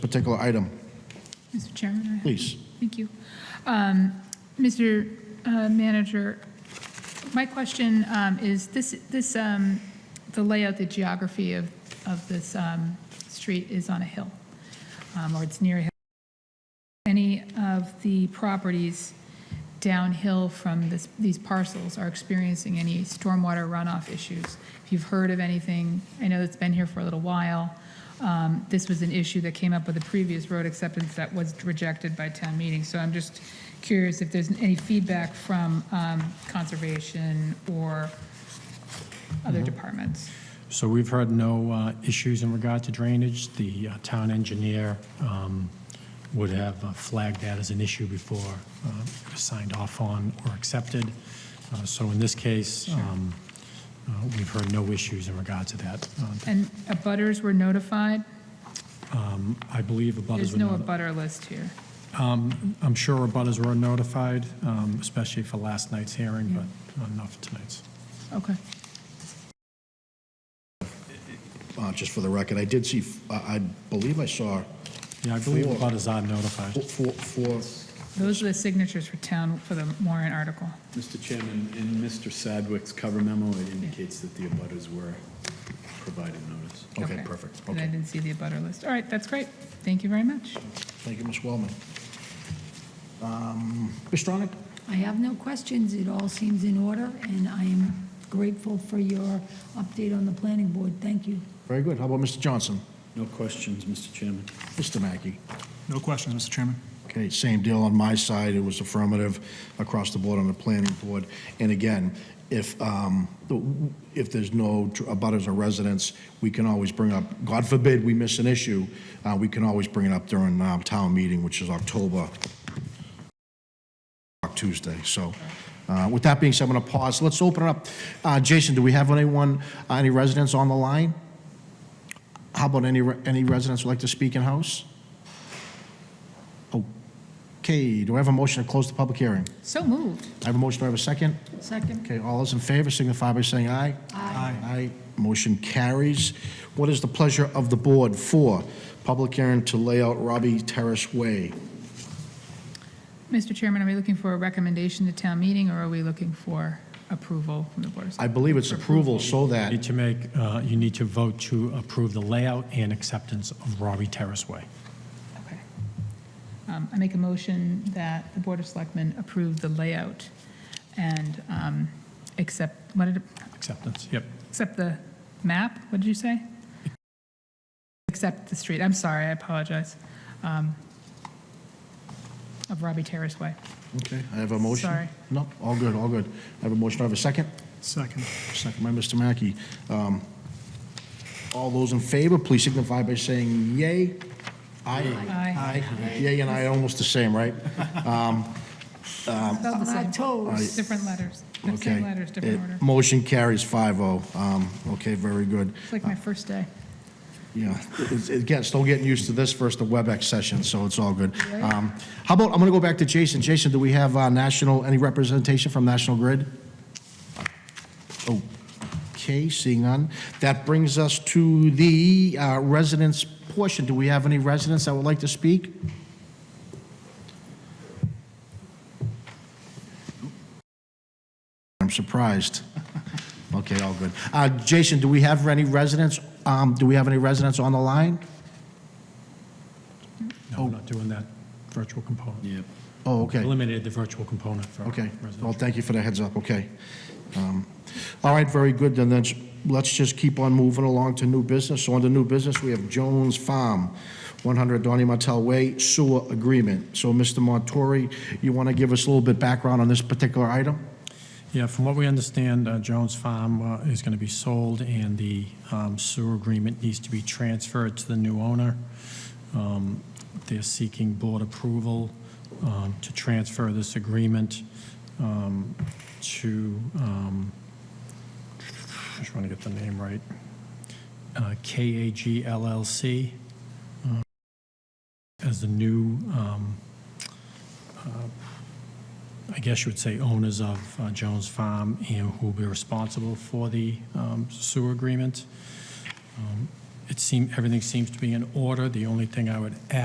particular item. Mr. Chairman? I have- Please. Thank you. Um, Mr. uh, Manager, my question um, is, this, this, um, the layout, the geography of, of this um, street is on a hill, um, or it's near a hill. Any of the properties downhill from this, these parcels are experiencing any stormwater runoff issues? If you've heard of anything, I know it's been here for a little while. Um, This was an issue that came up with the previous road acceptance that was rejected by town meeting. So I'm just curious if there's any feedback from um, conservation or other departments? So we've heard no uh, issues in regard to drainage. The uh, town engineer um, would have uh, flagged that as an issue before uh, it was signed off on or accepted. Uh, So in this case, um, uh, we've heard no issues in regard to that. Uh, And abutters were notified? I believe abutters There's were no notified. abutter list here. I'm sure abutters were notified, um, especially for last night's hearing, but uh, not for tonight's. Okay. Uh, Just for the record, I did see, I I believe I saw Yeah, I believe Four. abutters are notified. four- four, four, Those are the signatures for town, for the warrant article. Mr. Chairman, in Mr. Sadwick's cover memo, it indicates that the abutters were provided notice. okay, perfect. And I Okay. didn't see the abutter list. All right, that's great. Thank you very much. Thank you, Ms. Wellman. Um, Ms. Stronach? I have no questions. It all seems in order, and I am grateful for your update on the planning board. Thank you. Very good. How about Mr. Johnson? No questions, Mr. Chairman. Mr. Mackey? No questions, Mr. Chairman. Okay, same deal on my side, it was affirmative across the board on the planning board. And again, if, um, the- if there's no tr- abutters or residents, we can always bring up, God forbid we miss an issue, uh, we can always bring it up during uh, town meeting, which is October, Tuesday. So uh, with that being said, I'm going to pause, let's open it up. Uh, Jason, do we have anyone, uh, any residents on the line? How about any, re- any residents would like to speak in house? Okay, do I have a motion to close the public hearing? So moved. I have a motion, do I have a second? Second. Okay, all those in favor signify by saying aye. Aye. Aye, motion carries. What is the pleasure of the board for public hearing to lay out Robbie Terrace Way? Mr. Chairman, are we looking for a recommendation to town meeting, or are we looking for approval from the Board of I Selectmen? believe it's approval so You Need that, to make, uh, you need to vote to approve the layout and acceptance of Robbie Terrace Way. Okay. Um, I make a motion that the Board of Selectmen approve the layout and um, accept, what did, it- Acceptance, yep. accept the map? What did you say? Accept the street. I'm sorry, I apologize. Um, Of Robbie Terrace Way. okay, I have a motion. Sorry. No, all good, all good. I have a motion, do I have a second? Second. Second by Mr. Mackey. Um, All those in favor, please signify by saying yay. Aye. Aye. Aye. Yay and aye, almost the same, right? Spelled the same. Lactose. Different letters. Um, Okay. Same letters, different It- order. Motion carries 5-0. Um, Okay, very good. It's like my first day. Yeah, It's- it gets- still getting used to this first, the WebEx session, so it's all good. Um, How about, I'm going to go back to Jason. Jason, do we have uh, national, any representation from National Grid? Okay, seeing none. That brings us to the uh, residents portion. Do we have any residents that would like to speak? I'm surprised. Okay, all good. Uh, Jason, do we have any residents, um, do we have any residents on the line? No, we're not doing that virtual component. Yeah. Oh, okay. Eliminated the virtual component for Okay, well, residential. thank you for the heads up, okay. Um, All right, very good, then let's, let's just keep on moving along to new business. So under new business, we have Jones Farm, 100 Donny Martel Way sewer agreement. So Mr. Montori, you want to give us a little bit background on this particular item? Yeah, from what we understand, uh, Jones Farm uh, is going to be sold, and the um, sewer agreement needs to be transferred to the new owner. Um, They're seeking board approval um, to transfer this agreement um, to, um, just want to get the name right, uh, KAG LLC um, as the new um, I guess you would say owners of uh, Jones Farm and who will be responsible for the um, sewer agreement. Um, It seem everything seems to be in order. The only thing I would add.